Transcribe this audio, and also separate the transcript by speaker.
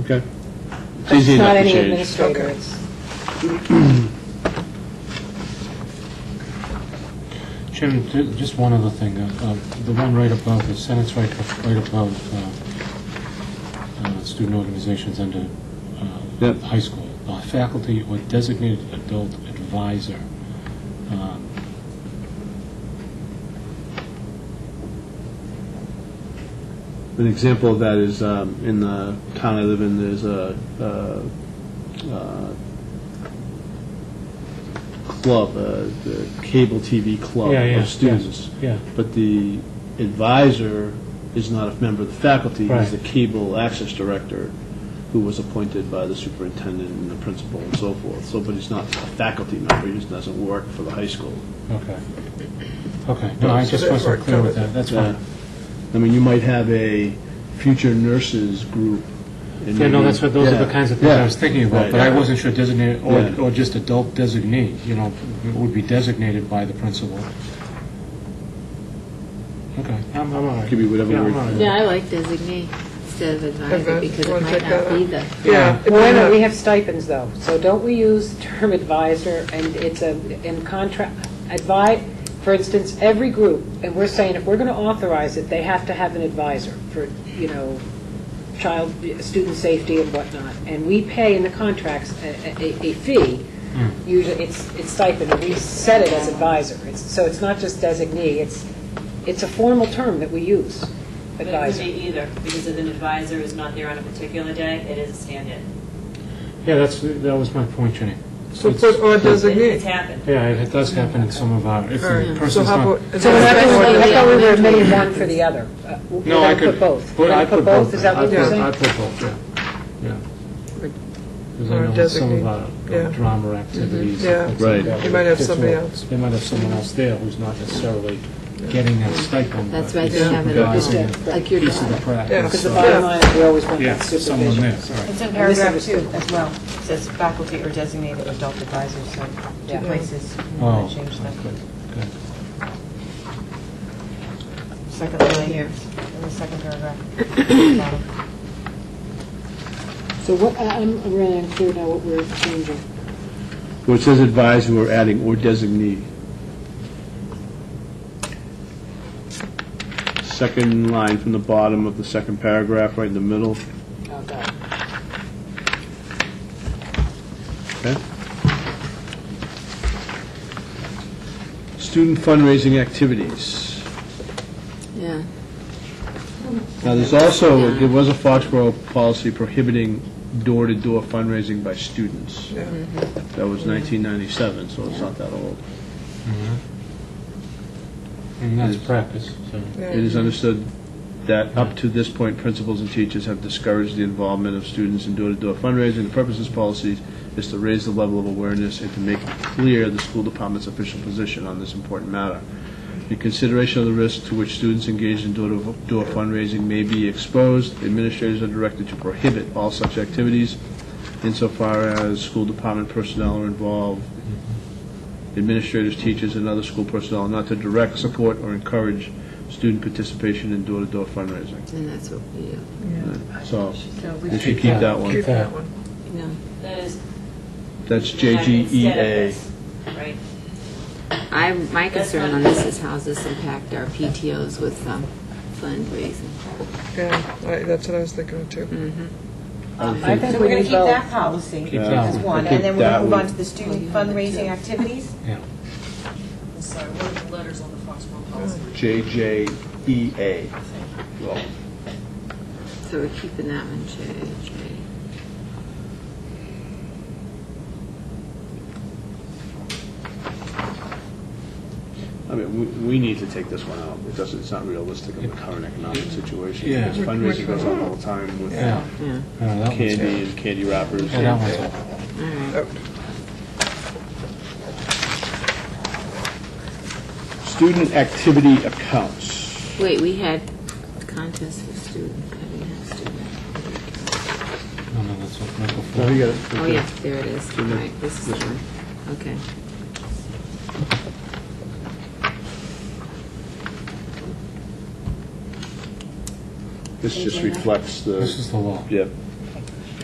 Speaker 1: Okay. It's
Speaker 2: It's
Speaker 1: easy enough
Speaker 2: not
Speaker 1: to
Speaker 2: any
Speaker 1: change.
Speaker 2: administrator.
Speaker 3: Okay.
Speaker 2: It's-
Speaker 4: Chairman, ju- just one other thing. Uh, uh, The one right above, the sentence right right above uh, uh, student organizations under uh,
Speaker 1: Yep.
Speaker 4: high school, Uh, faculty or designated adult advisor. Um,
Speaker 1: An example of that is um, in the town I live in, there's a uh, uh, club, uh, the cable TV club
Speaker 4: Yeah, yeah, yeah.
Speaker 1: of students.
Speaker 4: Yeah.
Speaker 1: But the advisor is not a member of the faculty,
Speaker 4: Right.
Speaker 1: he's the cable access director who was appointed by the superintendent and the principal and so forth. So, but he's not a faculty member, he just doesn't work for the high school.
Speaker 4: Okay. Okay. No, I
Speaker 3: So
Speaker 4: just
Speaker 3: that's
Speaker 4: wasn't
Speaker 3: right,
Speaker 4: clear with
Speaker 3: covered.
Speaker 4: that. That's
Speaker 1: Yeah.
Speaker 4: fine.
Speaker 1: I mean, you might have a future nurses group. and
Speaker 4: Yeah, no,
Speaker 1: maybe-
Speaker 4: that's what, those are the
Speaker 1: Yeah,
Speaker 4: kinds of things I
Speaker 1: yeah.
Speaker 4: was thinking about,
Speaker 1: Right,
Speaker 4: but I
Speaker 1: yeah.
Speaker 4: wasn't sure designated, or,
Speaker 1: Yeah.
Speaker 4: or just adult designee, you know, it would be designated by the principal. Okay, I'm, I'm all right.
Speaker 1: Could be whatever
Speaker 4: Yeah, I'm
Speaker 1: word-
Speaker 4: all right.
Speaker 5: Yeah, I like designee instead of advisor
Speaker 3: Advi-
Speaker 5: because
Speaker 3: you
Speaker 5: it
Speaker 3: wanna
Speaker 5: might
Speaker 3: take that
Speaker 5: not be
Speaker 3: out?
Speaker 5: the,
Speaker 4: Uh,
Speaker 3: Yeah.
Speaker 2: Well,
Speaker 3: it might
Speaker 2: wait a minute,
Speaker 3: not-
Speaker 2: we have stipends, though, so don't we use the term advisor, and it's a, in contract, advi, for instance, every group, and we're saying if we're going to authorize it, they have to have an advisor for, you know, child, student safety and whatnot, and we pay in the contracts a, a- a fee, usually, it's, it's stipend, and we set it as advisor, It's- so it's not just designee, it's, it's a formal term that we use,
Speaker 6: But it could
Speaker 2: advisor.
Speaker 6: be either, because if an advisor is not there on a particular day, it is a stand-in.
Speaker 4: Yeah, that's, that was my point, Jenny.
Speaker 3: So
Speaker 4: It's-
Speaker 3: put or
Speaker 6: It- It's
Speaker 3: designate.
Speaker 6: happened.
Speaker 4: Yeah, it it does happen in some of our, if
Speaker 3: All
Speaker 4: the
Speaker 3: right, so
Speaker 4: person's
Speaker 3: how
Speaker 4: not.
Speaker 3: about.
Speaker 2: So we're not
Speaker 5: That's
Speaker 2: gonna-
Speaker 5: what
Speaker 2: I thought we were
Speaker 5: the
Speaker 2: admitting
Speaker 5: elementary
Speaker 2: one for the other. Uh, we're
Speaker 4: No,
Speaker 2: gonna
Speaker 4: I could.
Speaker 2: put both.
Speaker 4: put-
Speaker 2: We're
Speaker 4: I
Speaker 2: gonna put both, is that what
Speaker 4: I
Speaker 2: you're
Speaker 4: put-
Speaker 2: saying?
Speaker 4: I put both, yeah, yeah. Because
Speaker 3: Or
Speaker 4: I know in some
Speaker 3: designate,
Speaker 4: of our
Speaker 3: yeah. Mm-hmm.
Speaker 4: drama activities.
Speaker 3: Yeah.
Speaker 4: it's-
Speaker 1: Right.
Speaker 4: it's
Speaker 3: You might have
Speaker 4: more-
Speaker 3: somebody else.
Speaker 4: They might have someone else there who's not necessarily getting that stipend.
Speaker 5: that's
Speaker 4: but
Speaker 5: why they
Speaker 4: is
Speaker 5: have it
Speaker 4: supervising
Speaker 2: all,
Speaker 4: the
Speaker 5: like your
Speaker 4: piece of the
Speaker 5: daughter.
Speaker 3: Yeah.
Speaker 2: Because the
Speaker 4: practice.
Speaker 2: bottom line, we always want
Speaker 4: Yeah,
Speaker 2: that
Speaker 4: someone there,
Speaker 2: supervision.
Speaker 4: sorry.
Speaker 7: It's in paragraph two
Speaker 2: misunderstood.
Speaker 7: as well. It says faculty or designated adult advisors, so
Speaker 2: Yeah.
Speaker 7: two places. We
Speaker 4: Oh,
Speaker 7: want to change that.
Speaker 4: good, good.
Speaker 7: Second line here, in the second paragraph.
Speaker 2: So what, I- I'm I'm really unclear now what we're changing.
Speaker 1: Well, it says advisor, we're adding or designee. Second line from the bottom of the second paragraph, right in the middle,
Speaker 2: Oh, God.
Speaker 1: okay? Student fundraising activities.
Speaker 5: yeah.
Speaker 1: Now, there's also, there was a Foxborough policy prohibiting door-to-door fundraising by students.
Speaker 3: Yeah.
Speaker 1: That was 1997, so it's not that old.
Speaker 4: And that's practice, so.
Speaker 3: Yeah.
Speaker 1: It is understood that up to this point, principals and teachers have discouraged the involvement of students in door-to-door fundraising. The purpose of this policy is to raise the level of awareness and to make clear the school department's official position on this important matter. In consideration of the risk to which students engaged in door-to-door fundraising may be exposed, administrators are directed to prohibit all such activities insofar as school department personnel are involved, administrators, teachers, and other school personnel, not to direct, support, or encourage student participation in door-to-door fundraising.
Speaker 5: And that's what we do.
Speaker 1: So,
Speaker 7: So
Speaker 1: we should keep that
Speaker 3: Keep
Speaker 1: one.
Speaker 3: that one.
Speaker 5: Yeah.
Speaker 6: That is.
Speaker 1: That's E
Speaker 6: instead of
Speaker 1: JGEA.
Speaker 6: this, Right.
Speaker 5: I, my concern on this is how does this impact our PTOs with um, fundraising?
Speaker 3: Yeah, I- that's what I was thinking of too.
Speaker 7: I think we're going to keep that policy
Speaker 4: Yeah.
Speaker 7: as one, and then we're
Speaker 1: That
Speaker 7: going to move
Speaker 1: would-
Speaker 7: on to the student fundraising activities.
Speaker 8: Sorry, what are the letters on the Foxborough policy?
Speaker 1: JJEA. Well,
Speaker 5: So we're keeping that one, J, J.
Speaker 1: I mean, we, we need to take this one out. It doesn't, it's not realistic in the current economic situation.
Speaker 4: Yeah.
Speaker 1: Because Fundraising goes on all the time with
Speaker 4: Yeah.
Speaker 5: Yeah.
Speaker 4: Yeah, that one's-
Speaker 1: candy and candy wrappers.
Speaker 4: Yeah, that one's all.
Speaker 3: Oh.
Speaker 1: Student activity accounts.
Speaker 5: Wait, we had contests for students. I didn't have student.
Speaker 4: No, no, that's what Michael.
Speaker 1: No, you got it.
Speaker 5: Oh, yeah, there it is.
Speaker 1: Student-
Speaker 5: Right, this is the one. Okay.
Speaker 1: This just reflects the.
Speaker 4: This is the law.
Speaker 1: Yep.